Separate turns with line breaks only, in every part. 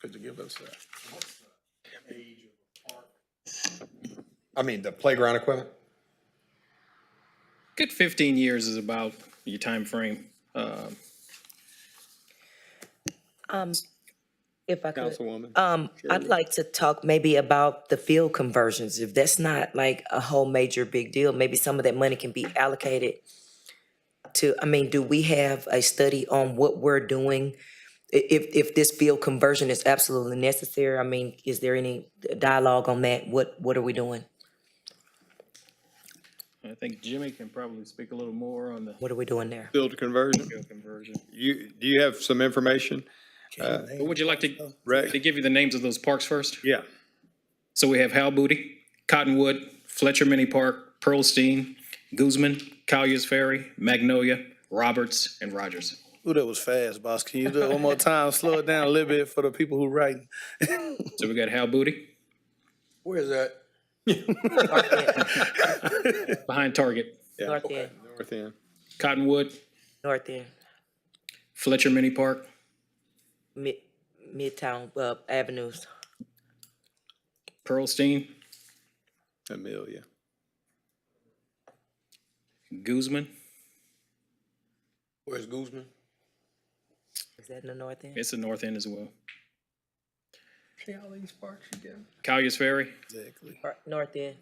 could you give us that?
I mean, the playground equipment?
Good 15 years is about your time frame. Uh,
If I could,
Councilwoman.
um, I'd like to talk maybe about the field conversions. If that's not like a whole major big deal, maybe some of that money can be allocated to, I mean, do we have a study on what we're doing? I- if, if this field conversion is absolutely necessary, I mean, is there any dialogue on that? What, what are we doing?
I think Jimmy can probably speak a little more on the
What are we doing there?
Field conversion.
field conversion.
You, do you have some information?
But Would you like to,
Right.
to give you the names of those parks first?
Yeah.
So we have Hal Booty, Cottonwood, Fletcher Mini Park, Pearlstein, Guzman, Collier's Ferry, Magnolia, Roberts, and Rogers.
Ooh, that was fast, boss. Can you do it one more time? Slow it down a little bit for the people who writing.
So we got Hal Booty
Where is that?
behind Target,
North End,
North End.
Cottonwood,
North End,
Fletcher Mini Park,
Mid, Midtown, uh, Avenues,
Pearlstein,
Amelia.
Guzman.
Where's Guzman?
is that in the North End?
It's the north end as well.
See all these parks you get?
Collier's Ferry,
Exactly.
Or North End,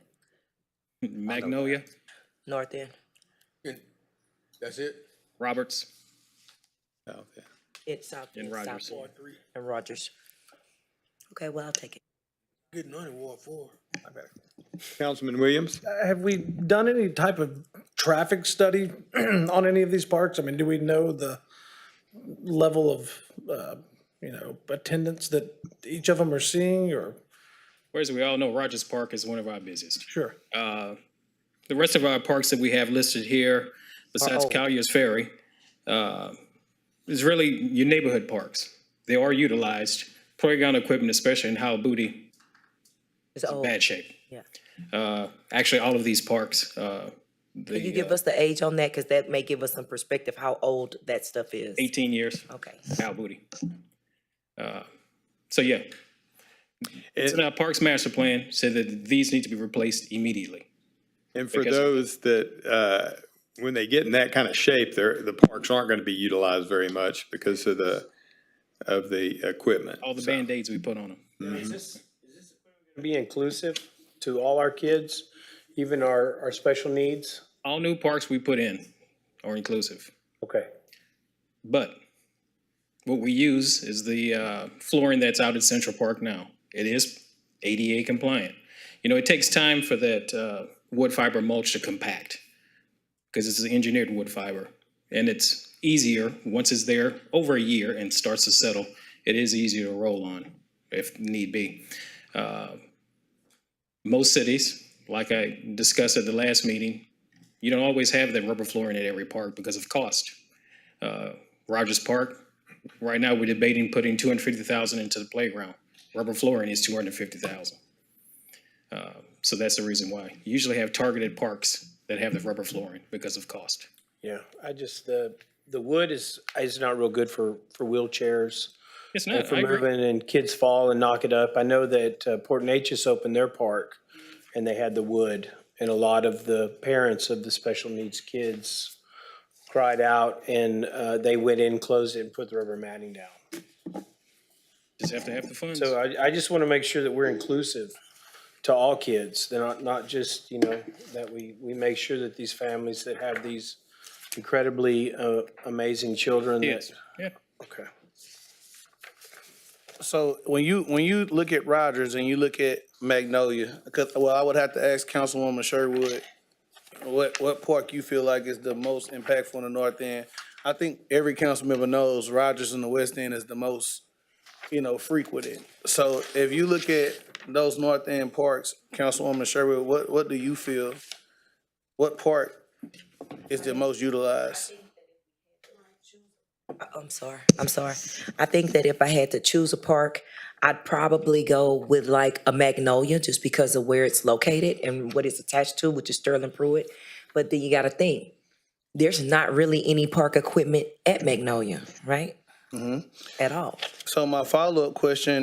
Magnolia,
North End,
That's it?
Roberts,
South End.
it's South.
And
End,
Rogers.
South End, And Rogers. Okay, well, I'll take it.
Getting on in Ward Four.
Councilman Williams?
Have we done any type of traffic study on any of these parks? I mean, do we know the level of, uh, you know, attendance that each of them are seeing or?
Whereas we all know Rogers Park is one of our busiest.
Sure.
The rest of our parks that we have listed here, besides
Uh-oh.
Collier's Ferry, uh, is really your neighborhood parks. They are utilized. Playground equipment, especially in Howell Booty,
It's old,
bad shape.
Oh. yeah.
Uh, Actually, all of these parks. uh,
Can you
the
give
uh,
us the age on that? Because that may give us some perspective how old that stuff is.
18 years,
Okay.
Howell Booty. Uh, So yeah. It's
And-
in our Parks Master Plan, said that these need to be replaced immediately.
And for
Because-
those that, uh, when they get in that kind of shape, they're, the parks aren't going to be utilized very much because of the, of the equipment.
All the Band-Aids we put on them.
Mm-hmm. be inclusive to all our kids, even our, our special needs?
All new parks we put in are inclusive.
Okay.
But what we use is the uh, flooring that's out at Central Park now. It is ADA compliant. You know, it takes time for that uh, wood fiber mulch to compact because it's engineered wood fiber. And it's easier, once it's there over a year and starts to settle, it is easier to roll on if need be. Uh, Most cities, like I discussed at the last meeting, you don't always have that rubber flooring at every park because of cost uh, Rogers Park. Right now, we're debating putting two hundred fifty thousand into the playground. Rubber flooring is two hundred fifty thousand. Uh, So that's the reason why. You usually have targeted parks that have the rubber flooring because of cost.
Yeah, I just, the, the wood is, is not real good for, for wheelchairs,
It's not,
for
I agree.
moving, and kids fall and knock it up. I know that uh, Port Neches opened their park, and they had the wood, and a lot of the parents of the special needs kids cried out, and uh, they went in, closed it, and put the rubber matting down.
Just have to uh, have the funds.
So I, I just want to make sure that we're inclusive to all kids, They're not, not just, you know, that we, we make sure that these families that have these incredibly uh, amazing children that,
Yes, yeah.
okay.
So when you, when you look at Rogers and you look at Magnolia, because, well, I would have to ask Councilwoman Sherwood, what, what park you feel like is the most impactful in the north end? I think every council member knows Rogers in the west end is the most, you know, frequented. So if you look at those north end parks, Councilwoman Sherwood, what, what do you feel? What park is the most utilized?
Uh, I'm sorry, I'm sorry. I think that if I had to choose a park, I'd probably go with like a Magnolia, just because of where it's located and what it's attached to, which is Sterling Pruitt. But then you gotta think, there's not really any park
Mm-hmm.
equipment at Magnolia, right? At all.
So my follow-up question